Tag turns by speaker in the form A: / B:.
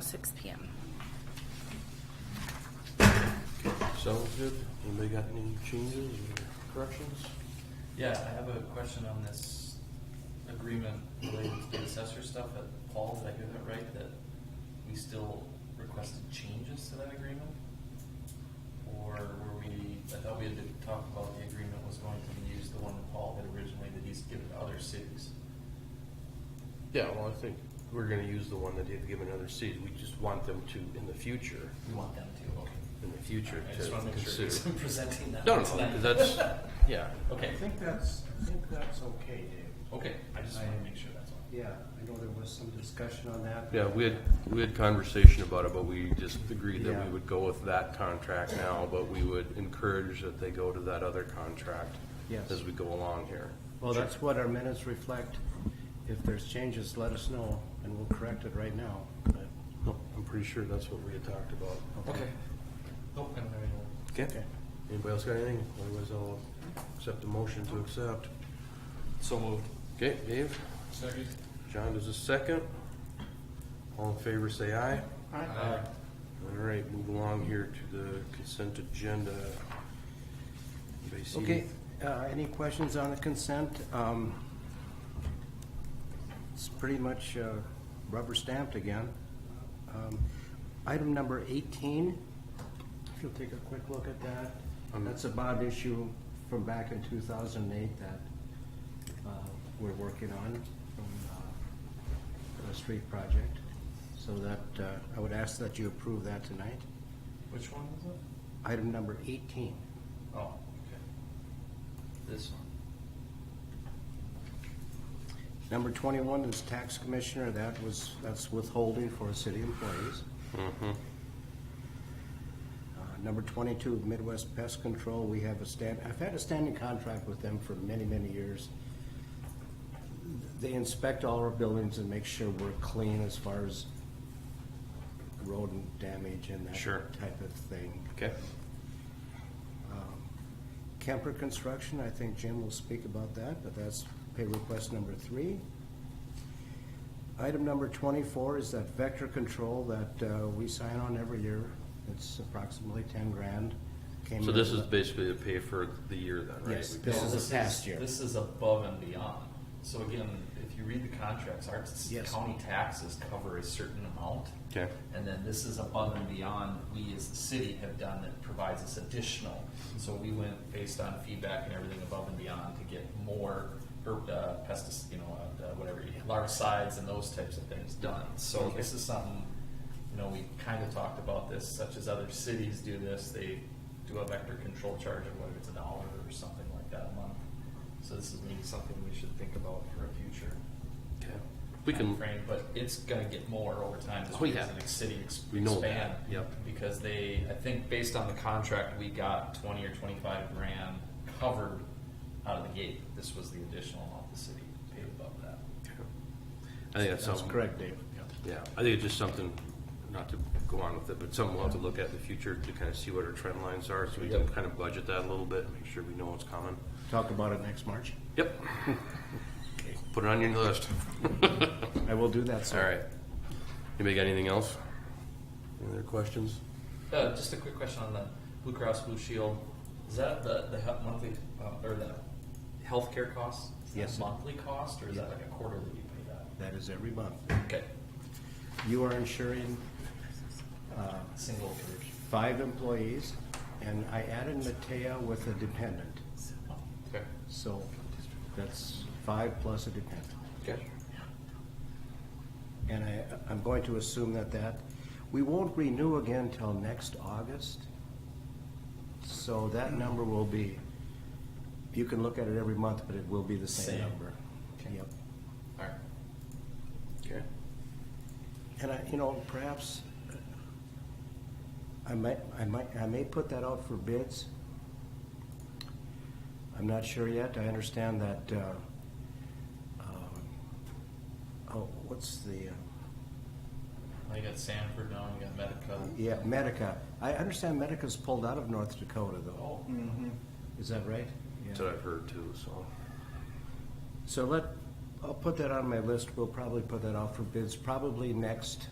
A: six PM.
B: Sounds good. Anybody got any changes or corrections?
C: Yeah, I have a question on this agreement related to the assessor stuff at Paul, did I hear that right, that we still requested changes to that agreement? Or were we, I thought we had to talk about the agreement was going to be used, the one that Paul had originally, that he's given to other cities.
B: Yeah, well, I think we're gonna use the one that they've given other cities. We just want them to, in the future,
C: We want them to, okay.
B: in the future
C: I
B: to
C: just wanna make sure,
B: consider.
C: 'cause I'm presenting that.
B: No, no,
C: tonight.
B: because that's, yeah.
C: Okay,
D: I think that's, I think that's okay, Dave.
C: okay, I just wanna make sure that's all.
D: Yeah, I know there was some discussion on that.
B: Yeah, we had, we had conversation about it, but we just agreed that
D: Yeah.
B: we would go with that contract now, but we would encourage that they go to that other contract
D: Yes.
B: as we go along here.
D: Well, that's what our minutes reflect. If there's changes, let us know, and we'll correct it right now. But
B: No, I'm pretty sure that's what we had talked about.
C: Okay. Nope, Oh, I don't have any more.
D: Okay.
B: Anybody else got anything? Otherwise, I'll accept a motion to accept.
C: So moved.
B: Okay, Dave?
C: Second.
B: John does a second. All in favor, say aye. All right, move along here to the consent agenda. Anybody see-
D: Okay, uh, any questions on the consent? Um, It's pretty much uh, rubber stamped again. Um, Item number 18, if you'll take a quick look at that,
B: Um,
D: that's a bond issue from back in 2008 that uh, we're working on from uh, a street project. So that, uh, I would ask that you approve that tonight.
C: Which one was it?
D: Item number 18.
C: Oh, okay. This one.
D: Number twenty-one is tax commissioner, that was, that's withholding for city employees.
B: Mm-hmm.
D: Uh, Number twenty-two, Midwest Pest Control, we have a stand, I've had a standing contract with them for many, many years. They inspect all our buildings and make sure we're clean as far as rodent damage and that
B: Sure.
D: type of thing.
B: Okay,
D: Um, Kemper Construction, I think Jim will speak about that, but that's pay request number three. Item number twenty-four is that vector control that uh, we sign on every year. It's approximately ten grand. Came
B: so
D: in-
B: this is basically to pay for the year then, right?
D: Yes.
B: We-
D: This
C: No,
D: is a past year.
C: This is above and beyond. So again, if you read the contracts, our s-
D: Yes.
C: county taxes cover a certain amount.
B: Okay.
C: And then this is above and beyond we as the city have done that provides us additional. So we went based on feedback and everything above and beyond to get more herb, uh, pestis, you know, uh, whatever, larvicides and those types of things done. So
B: Okay.
C: this is something, you know, we kind of talked about this, such as other cities do this, they do a vector control charge of whether it's a dollar or something like that a month. So this is maybe something we should think about for a future
B: Okay. We can,
C: frame, but it's gonna get more over time as
B: Oh,
C: we
B: yeah.
C: as the city ex-
B: We know
C: expand.
B: that, yep.
C: Because they, I think based on the contract, we got twenty or twenty-five grand covered out of the gate. This was the additional amount the city paid above that.
B: I think that's
D: That's
B: something.
D: correct, Dave.
B: Yeah, I think it's just something, not to go on with it, but something we'll have to look at in the future to kind of see what our trend lines are, so we can kind of budget that a little bit, make sure we know what's coming.
D: Talk about it next March.
B: Yep. Put it on your list.
D: I will do that,
B: All
D: sir.
B: right. Anybody got anything else? Any other questions?
C: Uh, just a quick question on the Blue Cross Blue Shield. Is that the, the he- monthly, uh, or the healthcare costs? Is that
D: Yes.
C: Monthly cost, or is that like a quarterly you pay that?
D: That is every month.
C: Okay,
D: You are insuring
C: single coverage.
D: five employees, and I added Matea with a dependent.
C: Okay.
D: So that's five plus a dependent.
C: Okay.
D: And I, I'm going to assume that that, we won't renew again till next August. So that number will be, you can look at it every month, but it will be the
C: Same.
D: same number.
C: Okay.
D: Yep.
C: All right.
B: Okay.
D: And I, you know, perhaps, uh, I might, I might, I may put that out for bids. I'm not sure yet. I understand that, uh, um, oh, what's the, uh,
C: Now you got Sanford, now you got Medica.
D: Yeah, Medica. I understand Medica's pulled out of North Dakota, though. Is that right?
B: That's what I've heard too, so.
D: So let, I'll put that on my list. We'll probably put that out for bids, probably next